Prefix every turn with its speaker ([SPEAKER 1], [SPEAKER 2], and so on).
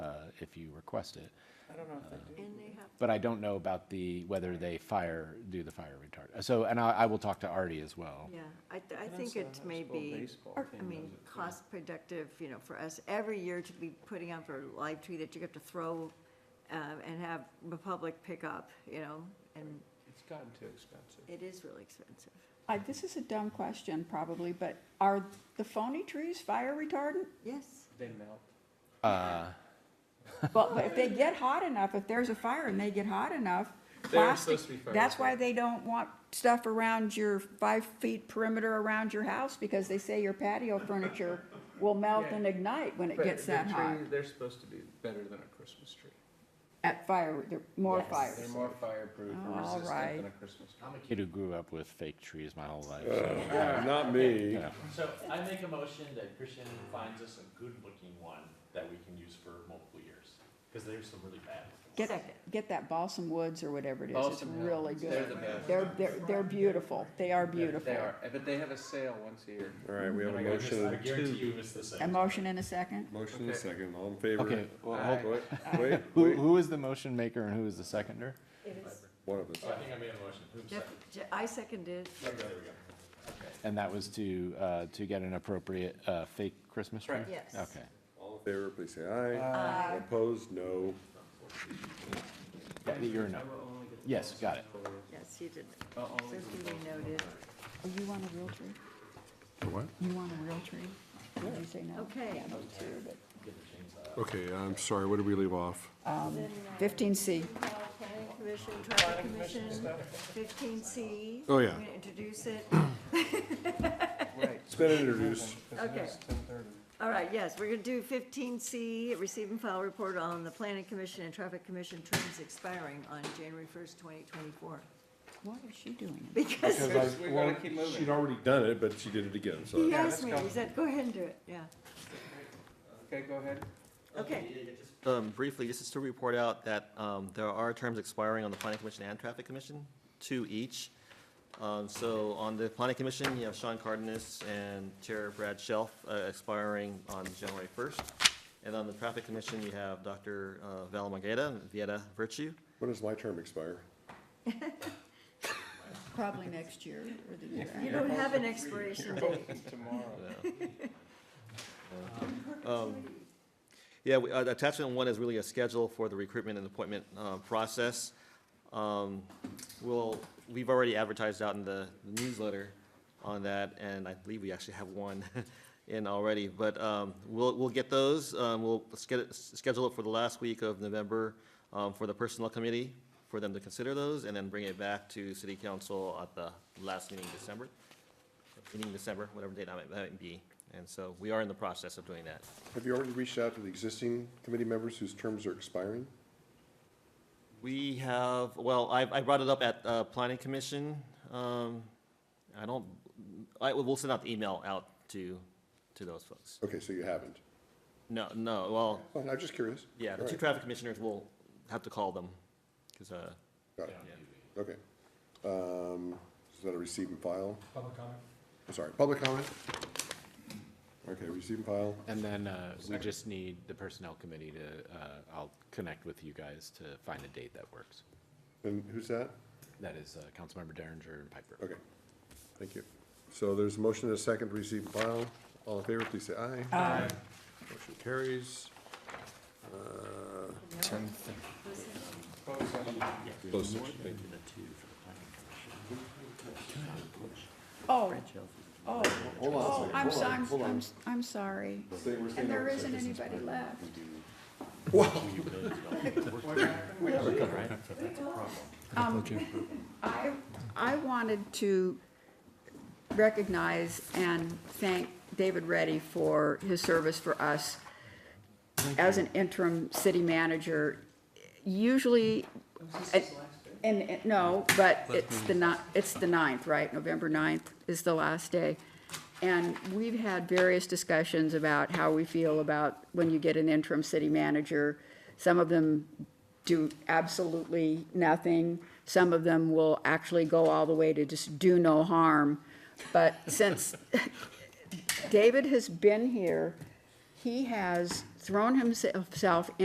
[SPEAKER 1] uh, if you request it.
[SPEAKER 2] I don't know if they do.
[SPEAKER 3] And they have,
[SPEAKER 1] But I don't know about the, whether they fire, do the fire retard. So, and I, I will talk to Artie as
[SPEAKER 4] Oh.
[SPEAKER 1] well.
[SPEAKER 3] yeah, I, th- I
[SPEAKER 2] But
[SPEAKER 3] think
[SPEAKER 2] that's a
[SPEAKER 3] it may
[SPEAKER 2] high school
[SPEAKER 3] be,
[SPEAKER 2] baseball
[SPEAKER 3] or, I
[SPEAKER 2] team,
[SPEAKER 3] mean,
[SPEAKER 2] does it?
[SPEAKER 3] cost productive, you know, for us, every year to be putting out for a live tweet that you have to throw, um, and have the public pick up, you know, and
[SPEAKER 2] It's gotten too expensive.
[SPEAKER 3] it is really expensive.
[SPEAKER 5] I, this is a dumb question probably, but are the phony trees fire retardant?
[SPEAKER 3] Yes,
[SPEAKER 2] They melt.
[SPEAKER 1] Uh,
[SPEAKER 5] Well, but if they get hot enough, if there's a fire and they get hot enough, plastic,
[SPEAKER 2] supposed to be fire
[SPEAKER 5] that's why they don't want stuff around your five feet perimeter around your house, because they say your patio furniture will melt
[SPEAKER 2] Yeah.
[SPEAKER 5] and ignite when it gets that hot.
[SPEAKER 2] They're supposed to be better than a Christmas tree.
[SPEAKER 5] At fire, they're more
[SPEAKER 3] Yes.
[SPEAKER 5] fires.
[SPEAKER 2] They're more fireproof
[SPEAKER 5] Oh,
[SPEAKER 2] and
[SPEAKER 5] all
[SPEAKER 2] resistant than
[SPEAKER 5] right.
[SPEAKER 2] a Christmas tree.
[SPEAKER 1] I'm a kid who grew up with fake trees my whole life. so-
[SPEAKER 4] Not me.
[SPEAKER 1] Yeah.
[SPEAKER 6] So I make a motion that Christian finds us a good-looking one that we can use for multiple years, because there's some really bad ones.
[SPEAKER 5] Get,
[SPEAKER 3] Second.
[SPEAKER 5] get that balsam woods or whatever it is, it's
[SPEAKER 2] Balsam Hill.
[SPEAKER 5] really
[SPEAKER 2] They're
[SPEAKER 5] good.
[SPEAKER 2] the best.
[SPEAKER 5] They're, they're, they're beautiful, they are beautiful.
[SPEAKER 2] They are, eh, but they have a sale once a year.
[SPEAKER 4] All right, we have
[SPEAKER 6] And I
[SPEAKER 4] a
[SPEAKER 6] guarantee- I
[SPEAKER 4] motion,
[SPEAKER 6] guarantee you it's the same.
[SPEAKER 5] A motion and a second?
[SPEAKER 4] motion and a
[SPEAKER 2] Okay.
[SPEAKER 4] second, all in favor?
[SPEAKER 1] Okay, well, hold-
[SPEAKER 2] Aye.
[SPEAKER 4] Wait, wait,
[SPEAKER 1] who,
[SPEAKER 4] wait,
[SPEAKER 1] who is the motion maker and who is the seconder?
[SPEAKER 3] it is.
[SPEAKER 4] one of us.
[SPEAKER 6] So Oh, I think I made a motion. Oops,
[SPEAKER 3] Jeff,
[SPEAKER 6] sorry.
[SPEAKER 3] Je- I seconded,
[SPEAKER 6] Okay, there we go.
[SPEAKER 1] And that was to, uh, to get an appropriate, uh, fake Christmas tree?
[SPEAKER 2] Correct.
[SPEAKER 3] yes.
[SPEAKER 1] Okay.
[SPEAKER 4] All in favor, please say aye. Opposed, no.
[SPEAKER 1] Yeah, You're a no. Yes, got it.
[SPEAKER 3] Yes, you did.
[SPEAKER 2] I'll
[SPEAKER 3] So
[SPEAKER 2] only do
[SPEAKER 3] can be noted.
[SPEAKER 5] Oh, you want a real tree?
[SPEAKER 4] What?
[SPEAKER 5] You want a real tree? Did you say no?
[SPEAKER 3] Okay.
[SPEAKER 5] Yeah, those two, but-
[SPEAKER 4] Okay, I'm sorry, what did we leave off?
[SPEAKER 5] um, Fifteen C.
[SPEAKER 3] Planning Commission, Traffic Commission, fifteen C.
[SPEAKER 4] Oh, yeah.
[SPEAKER 3] I'm gonna introduce it.
[SPEAKER 2] Right.
[SPEAKER 4] It's been introduced.
[SPEAKER 3] Okay. All right, yes, we're gonna do fifteen C, receive and file report on the planning commission and traffic commission terms expiring on January first, twenty twenty-four.
[SPEAKER 5] What is she doing?
[SPEAKER 3] Because
[SPEAKER 2] Because we gotta keep
[SPEAKER 4] She'd
[SPEAKER 2] moving.
[SPEAKER 4] already done it, but she did it again, so.
[SPEAKER 3] he
[SPEAKER 2] Yeah,
[SPEAKER 3] asked
[SPEAKER 2] let's
[SPEAKER 3] me,
[SPEAKER 2] go.
[SPEAKER 3] he said, go ahead and do it, yeah,
[SPEAKER 2] Okay, go ahead.
[SPEAKER 3] okay,
[SPEAKER 7] Um, briefly, this is to report out that, um, there are terms expiring on the planning commission and traffic commission, two each. Um, so on the planning commission, you have Sean Cardenas and Chair Brad Shelf, uh, expiring on January first. And on the traffic commission, you have Dr. uh, Val Mageda, and Vieta Virtue,
[SPEAKER 4] When does my term expire?
[SPEAKER 5] Probably next year or the year
[SPEAKER 3] you
[SPEAKER 5] after.
[SPEAKER 3] don't have an expiration date.
[SPEAKER 2] Tomorrow.
[SPEAKER 7] Um, Yeah, we- uh, attachment one is really a schedule for the recruitment and appointment uh, process. Um, We'll, we've already advertised out in the newsletter on that, and I believe we actually have one in already. But um, we'll, we'll get those, um, we'll sched- schedule it for the last week of November um, for the Personnel Committee, for them to consider those, and then bring it back to City Council at the last meeting in December, meeting in December, whatever date that might- that might be. And so we are in the process of doing that.
[SPEAKER 4] Have you already reached out to the existing committee members whose terms are expiring?
[SPEAKER 7] We have, well, I, I brought it up at, uh, planning commission, um, I don't, I, we'll send out the email out to, to those folks.
[SPEAKER 4] Okay, so you haven't.
[SPEAKER 7] No, no, well,
[SPEAKER 4] Well, I'm just curious.
[SPEAKER 7] yeah, the
[SPEAKER 4] All
[SPEAKER 7] two
[SPEAKER 4] right.
[SPEAKER 7] traffic commissioners will have to call them, cause, uh,
[SPEAKER 4] Got it. Okay. Um, Is that a receive and file? Public comment. I'm sorry, public comment? Okay, receive and file.
[SPEAKER 1] And then, uh, we just need the personnel committee to, uh, I'll connect with you guys to find a date that works.
[SPEAKER 4] And who's that?
[SPEAKER 1] That is, uh, Councilmember Derringer and Piper.
[SPEAKER 4] Okay, thank you. So there's a motion and a second to receive and file. All in favor, please say aye. Aye. Motion carries. Uh, Close session, thank you.
[SPEAKER 5] Oh, oh,
[SPEAKER 4] Hold on a
[SPEAKER 5] oh,
[SPEAKER 4] second,
[SPEAKER 5] I'm,
[SPEAKER 4] hold
[SPEAKER 5] so-
[SPEAKER 4] on,
[SPEAKER 5] I'm,
[SPEAKER 4] hold on.
[SPEAKER 5] I'm, I'm sorry.
[SPEAKER 4] Stay- we're staying
[SPEAKER 5] And there
[SPEAKER 4] on
[SPEAKER 5] isn't
[SPEAKER 4] session.
[SPEAKER 5] anybody left.
[SPEAKER 4] Wow,
[SPEAKER 5] Um, I, I wanted to recognize and thank David Reddy for his service for us as an interim city manager. Usually, and, and- no, but it's the ni, it's the ninth, right? November ninth is the last day. And we've had various discussions about how we feel about when you get an interim city manager. Some of them do absolutely nothing. Some of them will actually go all the way to just do no harm. But since David has been here, he has thrown himself